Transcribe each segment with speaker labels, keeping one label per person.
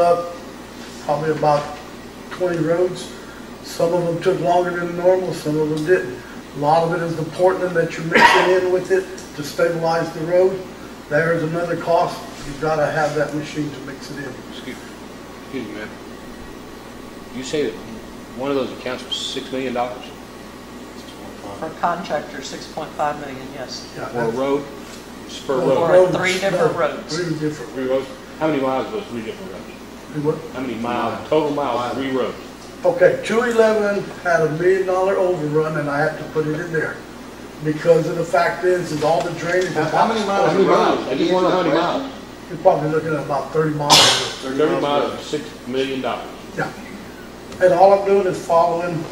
Speaker 1: up probably about 20 roads. Some of them took longer than normal, some of them didn't. A lot of it is the Portland that you're mixing in with it to stabilize the road. There is another cost. You've got to have that machine to mix it in.
Speaker 2: Excuse excuse me, ma'am. You say that one of those accounts was $6 million for
Speaker 3: For contractor, 6.5 million, yes.
Speaker 1: Yeah,
Speaker 2: a
Speaker 1: that's-
Speaker 2: road, It's per
Speaker 3: For
Speaker 2: road?
Speaker 1: roads,
Speaker 3: three different
Speaker 1: no,
Speaker 3: roads.
Speaker 1: Three different,
Speaker 2: Three roads? How many miles was three different roads?
Speaker 1: we went-
Speaker 2: How many miles, total miles, three roads?
Speaker 1: Okay, two eleven had a million dollar overrun and I had to put it in there. Because of the fact is, is all the drainage.
Speaker 4: How- how many miles?
Speaker 2: How many miles? I just want to know how many miles.
Speaker 1: You're probably looking at about thirty miles.
Speaker 2: 30 miles, is $6 million.
Speaker 1: Yeah. And all I'm doing is following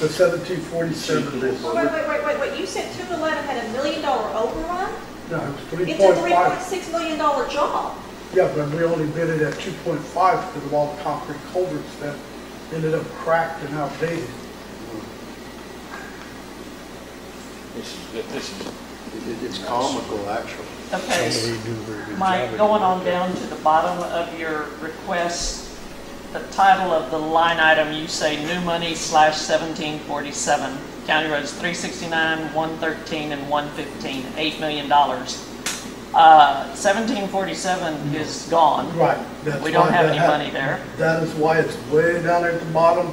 Speaker 1: the seventeen forty-seven list.
Speaker 5: Wait, wait, wait, wait, wait, you said two eleven had a million dollar overrun?
Speaker 1: No, it's three
Speaker 5: It's a
Speaker 1: point
Speaker 5: three point
Speaker 1: five.
Speaker 5: six million dollar job.
Speaker 1: Yeah, but we only bid it at two point five because of all the concrete culverts that ended up cracked and outdated.
Speaker 2: This is, this is,
Speaker 4: It- It's comical, actually.
Speaker 3: Okay, Mike, going on down to the bottom of your request, the title of the line item, you say new money slash 1747, county roads 369, 113, and 115, $8 million. Uh, 1747 is gone.
Speaker 1: Right. that's
Speaker 3: We don't
Speaker 1: why
Speaker 3: have
Speaker 1: that
Speaker 3: any
Speaker 1: hap-
Speaker 3: money there.
Speaker 1: That is why it's way down at the bottom,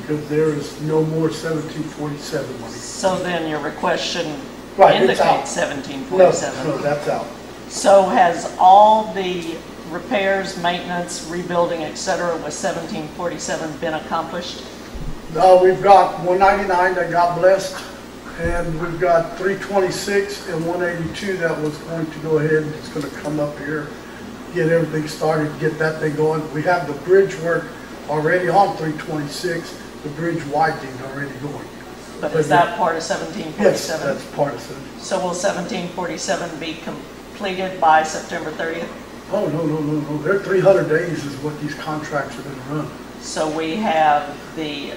Speaker 1: because there is no more seventeen forty-seven money.
Speaker 3: So then your request shouldn't
Speaker 1: Right, it's out.
Speaker 3: indicate
Speaker 1: No,
Speaker 3: 1747.
Speaker 1: no, that's out.
Speaker 3: So has all the repairs, maintenance, rebuilding, et cetera, with 1747 been accomplished?
Speaker 1: No, Uh, we've got one ninety-nine that got blessed, and we've got three twenty-six and one eighty-two that was going to go ahead, and it's gonna come up here, get everything started, get that thing going. We have the bridge work already on three twenty-six, the bridge widening already going.
Speaker 3: But is that part of
Speaker 1: Yes,
Speaker 3: 1747?
Speaker 1: that's part of it.
Speaker 3: So will 1747 be completed by September 30th?
Speaker 1: Oh, no, no, no, no, they're three hundred days is what these contracts are gonna run.
Speaker 3: So we have the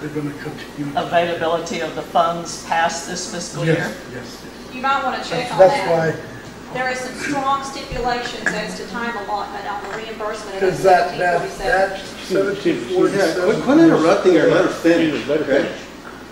Speaker 1: They're gonna continue.
Speaker 3: availability of the funds past this fiscal year?
Speaker 1: Yes, yes, yes.
Speaker 5: You might wanna check
Speaker 1: That's
Speaker 5: on
Speaker 1: that's
Speaker 5: that.
Speaker 1: why,
Speaker 5: There is some strong stipulations as to time allotment on the reimbursement of
Speaker 1: because that,
Speaker 5: seventeen
Speaker 1: that,
Speaker 5: forty-seven.
Speaker 1: that seventeen
Speaker 4: Yeah,
Speaker 1: forty-seven.
Speaker 4: quit- quit interrupting her, let her finish,
Speaker 2: Let her
Speaker 4: okay?
Speaker 2: finish.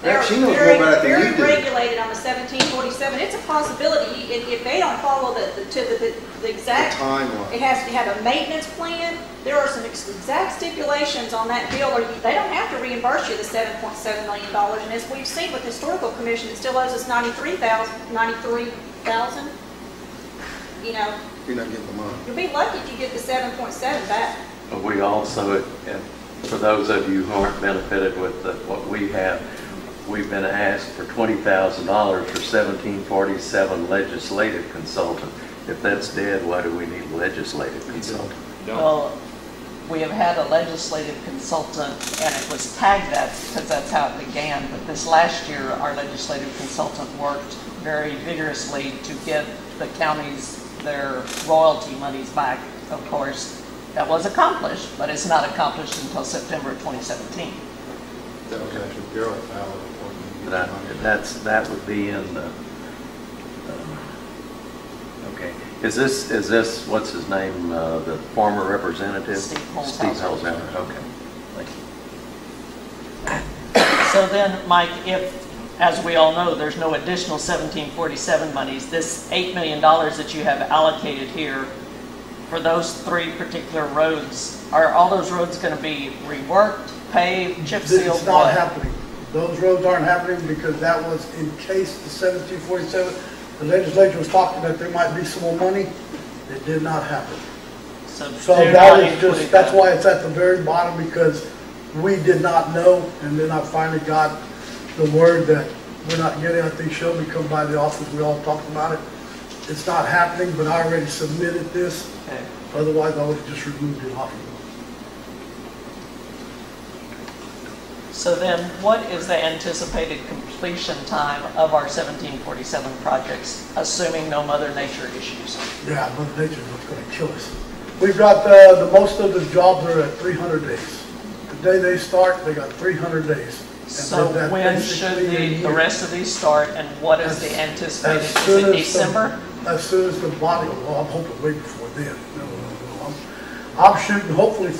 Speaker 5: They're
Speaker 4: She knows more
Speaker 5: very,
Speaker 4: about it than
Speaker 5: very
Speaker 4: you do.
Speaker 5: regulated on the seventeen forty-seven. It's a possibility, if, if they don't follow the, the- to the, the- the
Speaker 4: The
Speaker 5: exact It
Speaker 4: timeline.
Speaker 5: has to have a maintenance plan. There are some ex- exact stipulations on that bill, or you- they don't have to reimburse you the seven point seven million dollars. And as we've seen with the historical commission, it still owes us ninety-three thousand, ninety-three thousand. You know,
Speaker 4: You're not getting the money.
Speaker 5: you'll be lucky if you get the seven point seven back.
Speaker 6: But We also, and for those of you who aren't benefited with the- what we have, we've been asked for $20,000 for 1747 legislative consultant. If that's dead, why do we need legislative consultant?
Speaker 2: No.
Speaker 3: Well, we have had a legislative consultant, and it was tagged that, because that's how it began, but this last year, our legislative consultant worked very vigorously to get the counties their royalty monies back, of course. That was accomplished, but it's not accomplished until September 2017.
Speaker 4: That was actually Daryl Fowler. reporting you
Speaker 6: That-
Speaker 4: get the money.
Speaker 6: That's, that would be in the, um, okay. Is this, is this, what's his name, uh, the former representative?
Speaker 3: Steve Holzhauer.
Speaker 6: Steve Holzhauer, okay. Thank you.
Speaker 3: So then, Mike, if, as we all know, there's no additional 1747 monies, this $8 million that you have allocated here for those three particular roads, are all those roads going to be reworked, paved, chip
Speaker 1: This
Speaker 3: sealed,
Speaker 1: is not
Speaker 3: what?
Speaker 1: happening. Those roads aren't happening because that was in case the seventeen forty-seven, the legislature was talking that there might be some more money. It did not happen.
Speaker 3: So
Speaker 1: So
Speaker 3: they're
Speaker 1: that
Speaker 3: not
Speaker 1: is just,
Speaker 3: included
Speaker 1: that's
Speaker 3: then.
Speaker 1: why it's at the very bottom, because we did not know, and then I finally got the word that we're not getting, I think Shelby come by the office, we all talked about it. It's not happening, but I already submitted this,
Speaker 3: Okay.
Speaker 1: otherwise I would have just removed it off.
Speaker 3: So then, what is the anticipated completion time of our 1747 projects, assuming no Mother Nature issues?
Speaker 1: Yeah, Mother Nature's what's gonna kill us. We've got, uh, the, most of the jobs are at three hundred days. The day they start, they got three hundred days. And
Speaker 3: So
Speaker 1: that
Speaker 3: when should
Speaker 1: basically
Speaker 3: the, the
Speaker 1: means-
Speaker 3: rest of these start, and what is the anticipated, is it
Speaker 1: the-
Speaker 3: December?
Speaker 1: As soon as the body, well, I'm hoping way before then. No, no, no, I'm- I'm shooting hopefully